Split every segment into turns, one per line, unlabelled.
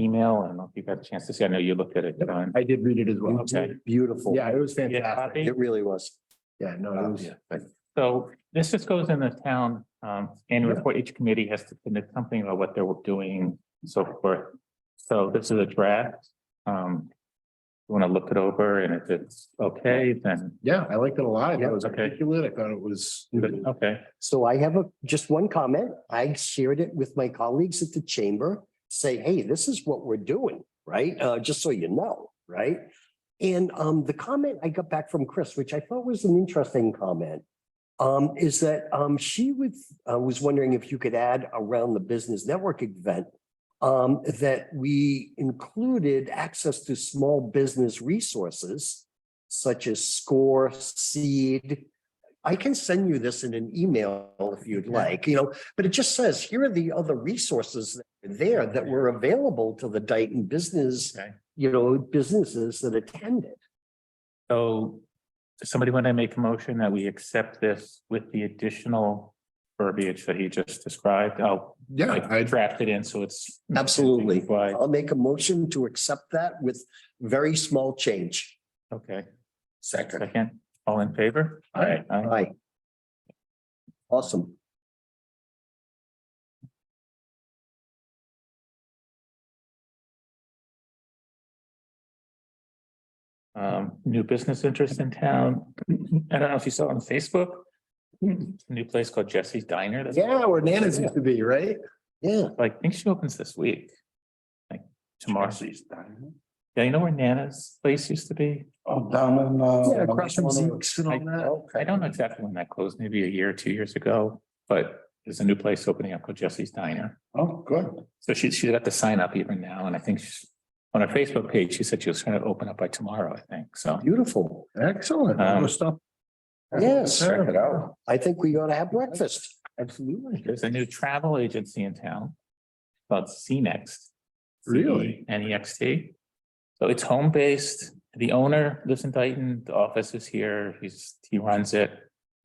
email? I don't know if you've had a chance to see. I know you looked at it, John.
I did read it as well.
Okay.
Beautiful. Yeah, it was
You had a
fantastic.
copy?
It really was. Yeah, no, it was.
So this just goes in the town, um, annual report, each committee has to submit something about what they're doing, and so forth. So this is a draft, um. You want to look it over and if it's okay, then,
Yeah, I liked it a lot. That was
Okay.
articulate. I thought it was.
okay,
So I have a, just one comment. I shared it with my colleagues at the chamber, say, hey, this is what we're doing, right? Uh, just so you know, right? And um, the comment I got back from Chris, which I thought was an interesting comment, um, is that um, she would, uh, was wondering if you could add around the business network event um, that we included access to small business resources such as score, seed, I can send you this in an email if you'd like, you know, but it just says, here are the other resources that are there that were available to the Dayton business,
Okay.
you know, businesses that attended.
so. does Somebody want to make a motion that we accept this with the additional verbiage that he just described? I'll
Yeah,
I
I,
drafted in, so it's.
Absolutely.
Why,
I'll make a motion to accept that with very small change.
okay,
Second.
second, all in favor?
Aye.
Aye.
Aye. Awesome.
um, new business interest in town. I don't know if you saw it on Facebook. New place called Jesse's Diner. That's
yeah, where Nana's used to be, right?
Yeah,
like, I think she opens this week. Like tomorrow. Yeah, you know where Nana's place used to be?
Oh, down in, uh.
Yeah, across from Zeke's and all
I
that.
I don't know exactly when that closed, maybe a year or two years ago, but there's a new place opening up called Jesse's Diner.
Oh, good.
So she, she's got the sign up even now, and I think she's on her Facebook page, she said she was trying to open up by tomorrow, I think, so.
beautiful.
Excellent.
Um,
Good stuff.
Yes.
Check it out.
I think we ought to have breakfast.
Absolutely.
There's a new travel agency in town called C E Next.
Really?
N E X T. So it's home based. The owner lives in Dayton. The office is here. He's, he runs it.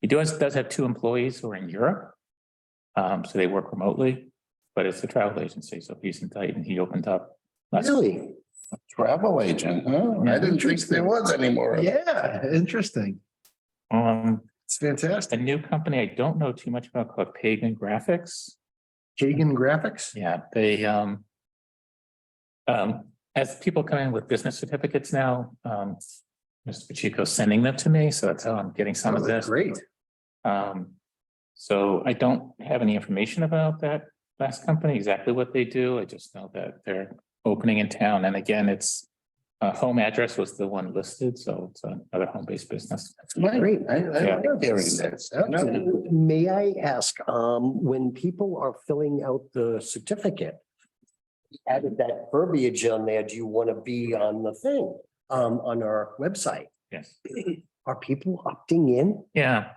He does, does have two employees who are in Europe. Um, so they work remotely, but it's a travel agency. So he's in Dayton. He opened up. last-
Really?
Travel
Oh,
agent, huh? I didn't think there was anymore.
Yeah, interesting.
Um,
It's fantastic.
a new company I don't know too much about called Pagan Graphics.
Kagan Graphics?
Yeah, they, um. Um, as people come in with business certificates now, um, Mr. Pacheco's sending them to me, so that's how I'm getting some of
Oh, that's
this.
Great.
Um, so I don't have any information about that last company, exactly what they do. I just know that they're opening in town. And again, it's. Uh, home address was the one listed, so it's another home-based business.
Great. I, I
Yeah.
love hearing this. No.
May I ask, um, when people are filling out the certificate, added that verbiage on there, do you want to be on the thing, um, on our website?
Yes.
Are people opting in?
Yeah.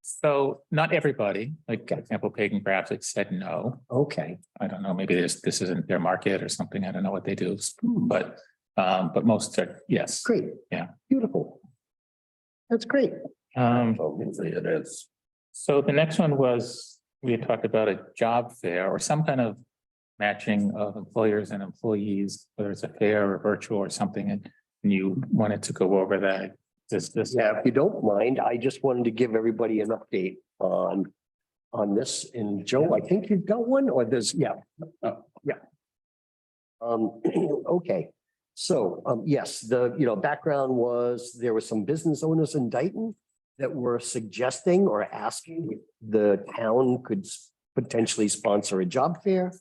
So not everybody, like, for example, Pagan Graphics said no.
Okay,
I don't know, maybe this, this isn't their market or something. I don't know what they do, but, um, but most are, yes.
great.
Yeah.
Beautiful. That's great.
Um,
Obviously it is.
so the next one was, we had talked about a job fair or some kind of matching of employers and employees, whether it's a fair or virtual or something, and you wanted to go over that. This, this,
Yeah, if you don't mind, I just wanted to give everybody an update on, on this. And Joe, I think you've got one or there's, yeah.
Oh.
Yeah. Um, okay, so, um, yes, the, you know, background was there were some business owners in Dayton that were suggesting or asking if the town could s- potentially sponsor a job fair.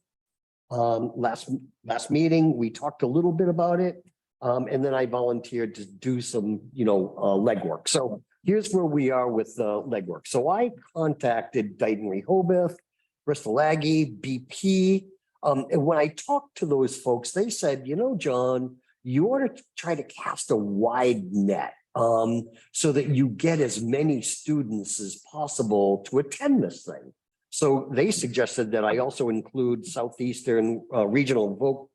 Um, last, last meeting, we talked a little bit about it. Um, and then I volunteered to do some, you know, uh, legwork. So here's where we are with the legwork. So I contacted Dayton Rehoboth, Bristol Aggie, BP. Um, and when I talked to those folks, they said, you know, John, you ought to try to cast a wide net um, so that you get as many students as possible to attend this thing. So they suggested that I also include Southeastern uh, Regional Voc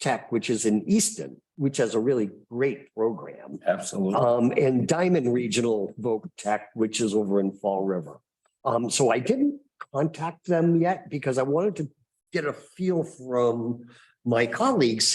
Tech, which is in Easton, which has a really great program.
Absolutely.
Um, and Diamond Regional Voc Tech, which is over in Fall River. Um, so I didn't contact them yet because I wanted to get a feel from my colleagues